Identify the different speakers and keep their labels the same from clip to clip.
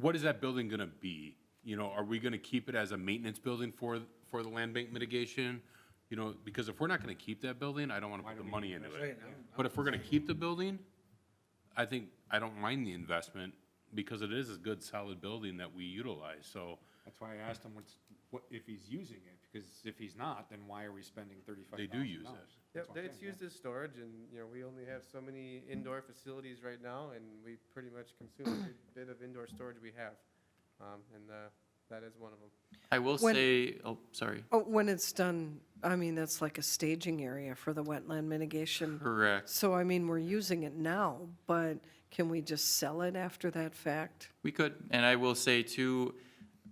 Speaker 1: what is that building going to be? You know, are we going to keep it as a maintenance building for, for the land bank mitigation? You know, because if we're not going to keep that building, I don't want to put the money into it. But if we're going to keep the building, I think, I don't mind the investment because it is a good, solid building that we utilize, so.
Speaker 2: That's why I asked him what's, what, if he's using it, because if he's not, then why are we spending thirty-five
Speaker 1: They
Speaker 2: thousand
Speaker 1: do
Speaker 2: dollars?
Speaker 1: use it.
Speaker 3: Yep, they- it's used as storage, and, you know, we only have so many indoor facilities right now, and we pretty much consume every bit of indoor storage we have. Um, And uh, that is one of them.
Speaker 4: I will
Speaker 5: When-
Speaker 4: say, oh, sorry.
Speaker 5: Oh, when it's done, I mean, that's like a staging area for the wetland mitigation.
Speaker 4: Correct.
Speaker 5: So, I mean, we're using it now, but can we just sell it after that fact?
Speaker 4: We could, and I will say too,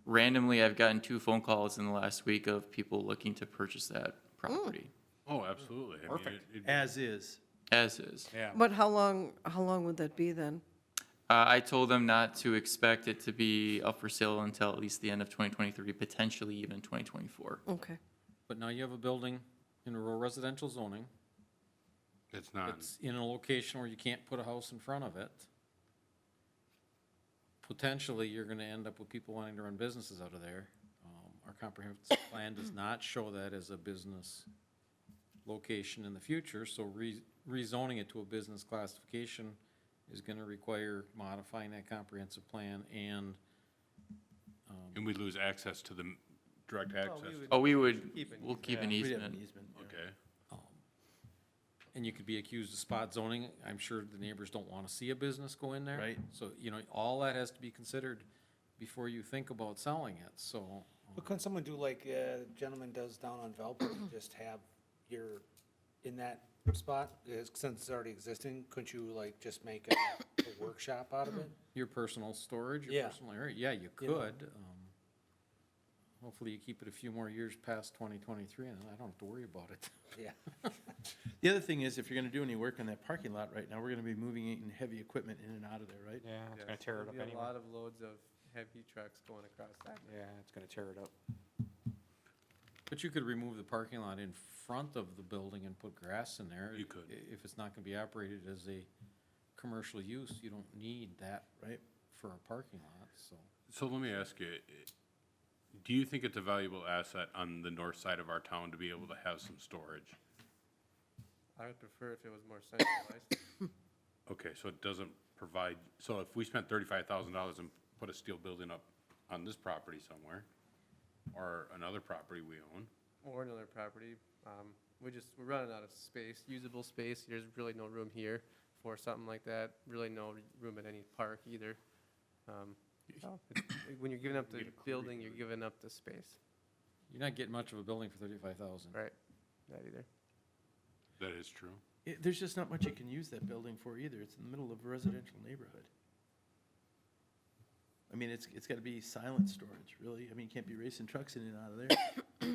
Speaker 4: randomly, I've gotten two phone calls in the last week of people looking to purchase that property,
Speaker 1: Oh, absolutely. I mean,
Speaker 2: Perfect.
Speaker 1: it- it-
Speaker 6: As is.
Speaker 4: as is.
Speaker 2: Yeah,
Speaker 5: But how long, how long would that be then?
Speaker 4: Uh, I told them not to expect it to be up for sale until at least the end of 2023, potentially even 2024.
Speaker 5: Okay.
Speaker 7: But now you have a building in rural residential zoning.
Speaker 1: It's not,
Speaker 7: It's in a location where you can't put a house in front of it. Potentially, you're gonna end up with people wanting to run businesses out of there. Um, Our comprehensive plan does not show that as a business location in the future, so re- rezoning it to a business classification is gonna require modifying that comprehensive plan and
Speaker 1: and we lose access to the m- direct access,
Speaker 3: we would-
Speaker 4: Oh, we would,
Speaker 3: Keep an
Speaker 4: we'll keep an
Speaker 6: Yeah, we'd have
Speaker 4: easement.
Speaker 6: yeah.
Speaker 1: okay?
Speaker 7: And you could be accused of spot zoning. I'm sure the neighbors don't want to see a business go in there.
Speaker 6: Right.
Speaker 7: So, you know, all that has to be considered before you think about selling it, so.
Speaker 8: But couldn't someone do like uh, the gentleman does down on Valpo, and just have your, in that spot, is- since it's already existing, couldn't you like just make a a workshop out of it?
Speaker 7: Your personal storage, your
Speaker 8: Yeah.
Speaker 7: personal area, yeah, you
Speaker 8: You know.
Speaker 7: could. um, Hopefully you keep it a few more years past twenty twenty-three and then I don't have to worry about it.
Speaker 8: Yeah.
Speaker 6: The other thing is, if you're gonna do any work in that parking lot right now, we're gonna be moving in heavy equipment in and out of there, right?
Speaker 2: yeah, it's gonna tear it
Speaker 3: There'd
Speaker 2: up
Speaker 3: be A
Speaker 2: anyway.
Speaker 3: lot of loads of heavy trucks going across that.
Speaker 2: Yeah, it's gonna tear it up.
Speaker 7: But you could remove the parking lot in front of the building and put grass in there.
Speaker 1: You could.
Speaker 7: I- If it's not gonna be operated as a commercial use, you don't need that.
Speaker 6: Right.
Speaker 7: For a parking lot, so.
Speaker 1: So let me ask you, i- do you think it's a valuable asset on the north side of our town to be able to have some storage?
Speaker 3: I would prefer if it was more centralized.
Speaker 1: Okay, so it doesn't provide, so if we spent thirty-five thousand dollars and put a steel building up on this property somewhere, or another property we own,
Speaker 3: or another property. Um, we just, we're running out of space, usable space. There's really no room here for something like that. Really no r- room at any park either. Um, it's- when you're giving up the building, you're giving up the space,
Speaker 7: You're not getting much of a building for thirty-five thousand.
Speaker 3: right? That either.
Speaker 1: that is true.
Speaker 6: It- There's just not much you can use that building for either. It's in the middle of a residential neighborhood. I mean, it's, it's gotta be silent storage, really. I mean, you can't be racing trucks in and out of there.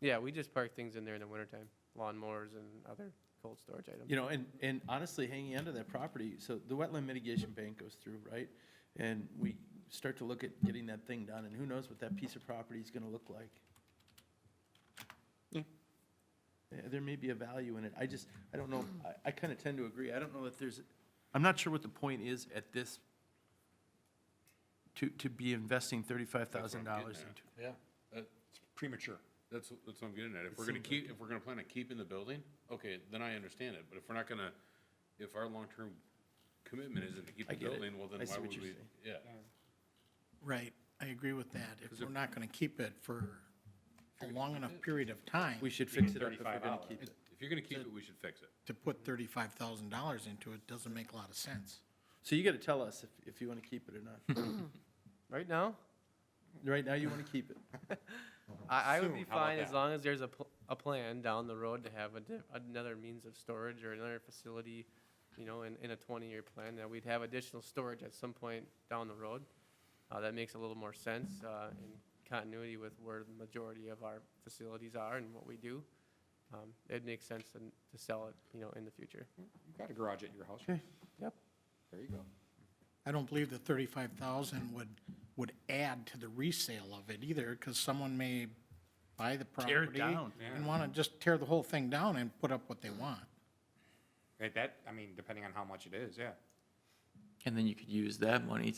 Speaker 3: Yeah, we just park things in there in the wintertime, lawnmowers and other cold storage items.
Speaker 6: You know, and, and honestly, hanging onto that property, so the wetland mitigation bank goes through, right? And we start to look at getting that thing done, and who knows what that piece of property is gonna look like. Yeah, There may be a value in it. I just, I don't know, I, I kinda tend to agree. I don't know that there's, I'm not sure what the point is at this, to, to be investing thirty-five thousand dollars into.
Speaker 8: Yeah.
Speaker 1: uh, It's premature. That's, that's what I'm getting at. If we're gonna keep, if we're gonna plan on keeping the building, okay, then I understand it, but if we're not gonna, if our long-term commitment isn't to keep
Speaker 6: I
Speaker 1: the
Speaker 6: get it.
Speaker 1: building, well, then
Speaker 6: I see
Speaker 1: why
Speaker 6: what
Speaker 1: would
Speaker 6: you're
Speaker 1: we?
Speaker 6: saying.
Speaker 1: Yeah,
Speaker 9: Right, I agree with that. If we're not gonna keep it for a long enough period of time
Speaker 6: We should fix it up if we're gonna keep it.
Speaker 1: if you're gonna keep it, we should fix it.
Speaker 9: to put thirty-five thousand dollars into it, doesn't make a lot of sense.
Speaker 6: So you gotta tell us if, if you wanna keep it or not.
Speaker 3: Right now,
Speaker 6: Right now, you wanna keep it.
Speaker 3: I, I would be
Speaker 2: How about
Speaker 3: fine as
Speaker 2: that?
Speaker 3: long as there's a, pl- a plan down the road to have a di- another means of storage or another facility, you know, in, in a twenty-year plan, that we'd have additional storage at some point down the road. Uh, that makes a little more sense, uh, in continuity with where the majority of our facilities are and what we do. Um, it makes sense to, to sell it, you know, in the future.
Speaker 2: You've got a garage at your house.
Speaker 3: Yep.
Speaker 2: There you go.
Speaker 9: I don't believe the thirty-five thousand would, would add to the resale of it either, because someone may buy the property.
Speaker 6: Tear it down.
Speaker 9: And wanna just tear the whole thing down and put up what they want.
Speaker 2: Right, that, I mean, depending on how much it is, yeah.
Speaker 4: And then you could use that money